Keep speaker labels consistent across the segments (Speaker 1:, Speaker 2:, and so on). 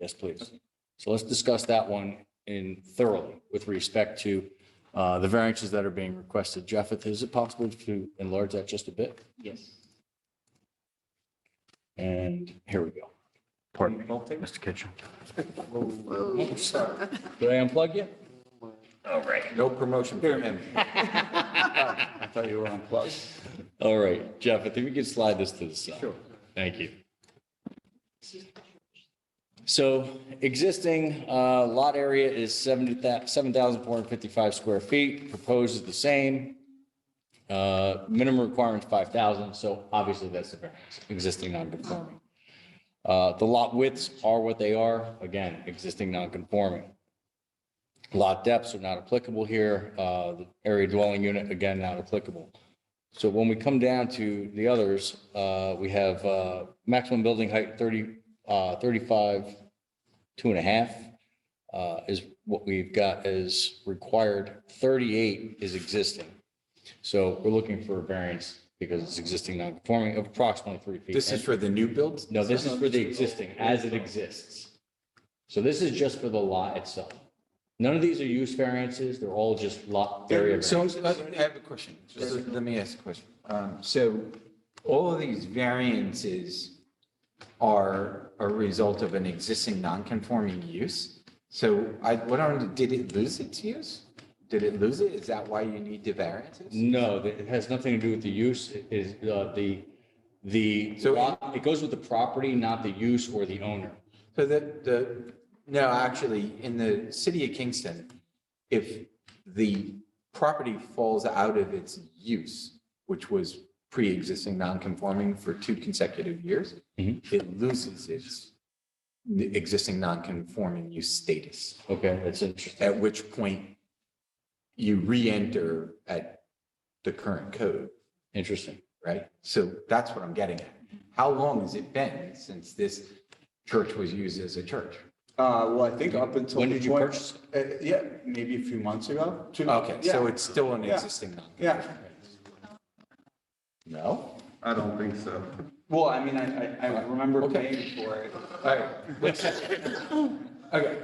Speaker 1: Yes, please. So let's discuss that one in thoroughly with respect to uh, the variances that are being requested. Jeff, is it possible to enlarge that just a bit?
Speaker 2: Yes.
Speaker 1: And here we go. Pardon me, Mr. Kitchen. Did I unplug you?
Speaker 3: No promotion for him. I thought you were unplugged.
Speaker 1: All right, Jeff, I think we can slide this to the side.
Speaker 3: Sure.
Speaker 1: Thank you. So existing uh, lot area is 70 7,455 square feet, proposed is the same. Uh, Minimum requirement's 5,000, so obviously that's the variance, existing non-conforming. Uh, The lot widths are what they are, again, existing non-conforming. Lot depths are not applicable here. Uh, The Area dwelling unit, again, not applicable. So when we come down to the others, uh, we have uh, maximum building height 30, uh, 35, two and a half uh, is what we've got as required. 38 is existing. So we're looking for a variance because it's existing non-conforming of approximately three feet.
Speaker 3: This is for the new builds?
Speaker 1: No, this is for the existing, as it exists. So this is just for the lot itself. None of these are use variances, they're all just lot area
Speaker 3: So
Speaker 1: variances.
Speaker 3: uh, I have a question. Just let me ask a question. Um, So all of these variances are a result of an existing non-conforming use? So I, what on, did it lose its use? Did it lose it? Is that why you need the variances?
Speaker 1: No, that- it has nothing to do with the use, it is uh, the, the,
Speaker 3: So-
Speaker 1: lot- it goes with the property, not the use or the owner.
Speaker 3: So that the, no, actually, in the city of Kingston, if the property falls out of its use, which was pre-existing non-conforming for two consecutive years,
Speaker 1: Mhm.
Speaker 3: it loses its existing non-conforming use status,
Speaker 1: Okay, that's interesting.
Speaker 3: at which point you re-enter at the current code,
Speaker 1: Interesting.
Speaker 3: right? So that's what I'm getting at. How long has it been since this church was used as a church?
Speaker 4: Uh, well, I think up until.
Speaker 1: When
Speaker 4: the
Speaker 1: did you
Speaker 4: point-
Speaker 1: purchase
Speaker 4: Uh, yeah, maybe a few months ago. two-
Speaker 3: Okay, so
Speaker 4: yeah,
Speaker 3: it's still an
Speaker 4: Yeah.
Speaker 3: existing non
Speaker 4: Yeah,
Speaker 3: No?
Speaker 5: I don't think so.
Speaker 4: well, I mean, I, I, I remember
Speaker 3: Okay.
Speaker 4: paying for it.
Speaker 3: All right. Okay.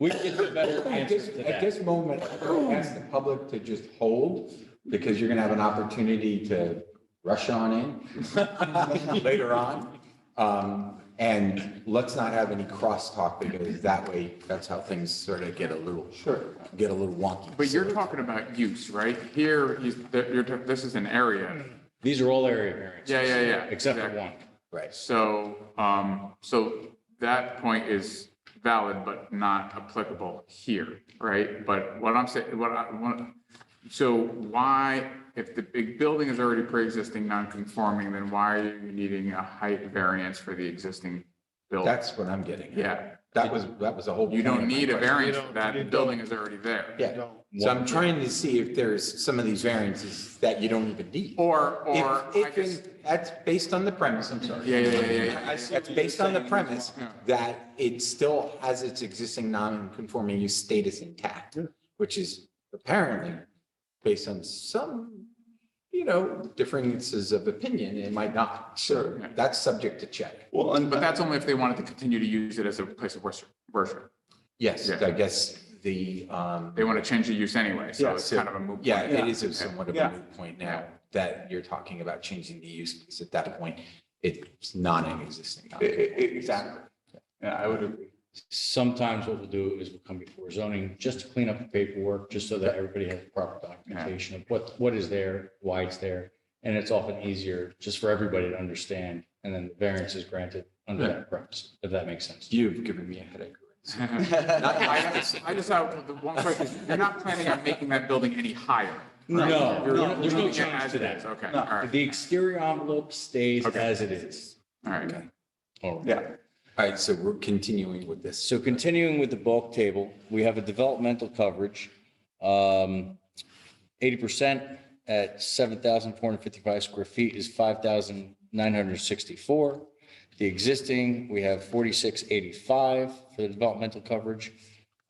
Speaker 1: We can get a better
Speaker 3: At
Speaker 1: answer
Speaker 3: this,
Speaker 1: to that.
Speaker 3: at this moment, I'm gonna ask the public to just hold because you're gonna have an opportunity to rush on in later on. Um, and let's not have any crosstalk because that way, that's how things sort of get a little. Sure. Get a little wonky.
Speaker 5: But you're talking about use, right? Here, you- you're, ta- this is an area.
Speaker 1: These are all area variances.
Speaker 5: Yeah, yeah, yeah.
Speaker 1: Except for
Speaker 5: exactly.
Speaker 1: one.
Speaker 3: Right.
Speaker 5: So, um, so that point is valid but not applicable here, right? But what I'm saying, what I, what, so why, if the big building is already pre-existing non-conforming, then why are you needing a height variance for the existing building?
Speaker 3: That's what I'm getting at.
Speaker 5: Yeah,
Speaker 3: That was, that was a whole.
Speaker 5: you
Speaker 3: point
Speaker 5: don't
Speaker 3: of my
Speaker 5: need a
Speaker 3: question.
Speaker 5: variance for that, the building is already there.
Speaker 3: Yeah, so I'm trying to see if there's some of these variances that you don't even need.
Speaker 5: Or, or,
Speaker 3: If,
Speaker 5: I
Speaker 3: if,
Speaker 5: guess,
Speaker 3: in- that's based on the premise, I'm sorry.
Speaker 5: yeah, yeah, yeah, yeah, yeah.
Speaker 3: That's based on the premise that it still has its existing non-conforming use status intact, which is apparently based on some, you know, differences of opinion, it might not. So that's subject to check.
Speaker 4: Well, and,
Speaker 5: But that's only if they wanted to continue to use it as a place of worship, worship.
Speaker 3: Yes,
Speaker 5: Yeah.
Speaker 3: I guess the, um,
Speaker 5: They want to change the use anyway, so
Speaker 3: Yeah,
Speaker 5: it's
Speaker 3: so-
Speaker 5: kind of a moot.
Speaker 3: yeah,
Speaker 5: point.
Speaker 3: it is a somewhat of a
Speaker 4: Yeah.
Speaker 3: moot point now that you're talking about changing the use, because at that point, it's non-existing.
Speaker 4: e- e- exactly. Yeah, I would agree.
Speaker 1: Sometimes what we'll do is we'll come before zoning just to clean up the paperwork, just so that everybody has proper documentation of what, what is there, why it's there. And it's often easier just for everybody to understand, and then the variance is granted under that premise, if that makes sense.
Speaker 3: You've given me a headache.
Speaker 5: I just- I just have the one question, is you're not planning on making that building any higher?
Speaker 1: No,
Speaker 5: You're-
Speaker 1: no, there's no
Speaker 5: you're leaving it
Speaker 1: change
Speaker 5: as
Speaker 1: to
Speaker 5: it is,
Speaker 1: that.
Speaker 5: Okay, all right,
Speaker 1: The exterior envelope stays
Speaker 5: Okay.
Speaker 1: as it is.
Speaker 5: all right.
Speaker 1: All right.
Speaker 4: Yeah.
Speaker 3: All right, so we're continuing with this.
Speaker 1: So continuing with the bulk table, we have a developmental coverage, um, 80% at 7,455 square feet is 5,964. The existing, we have 4685 for the developmental coverage.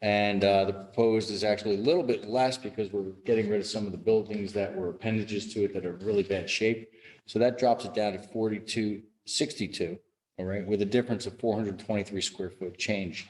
Speaker 1: And uh, the proposed is actually a little bit less because we're getting rid of some of the buildings that were appendages to it that are in really bad shape. So that drops it down to 4262 All right, with a difference of 423 square foot change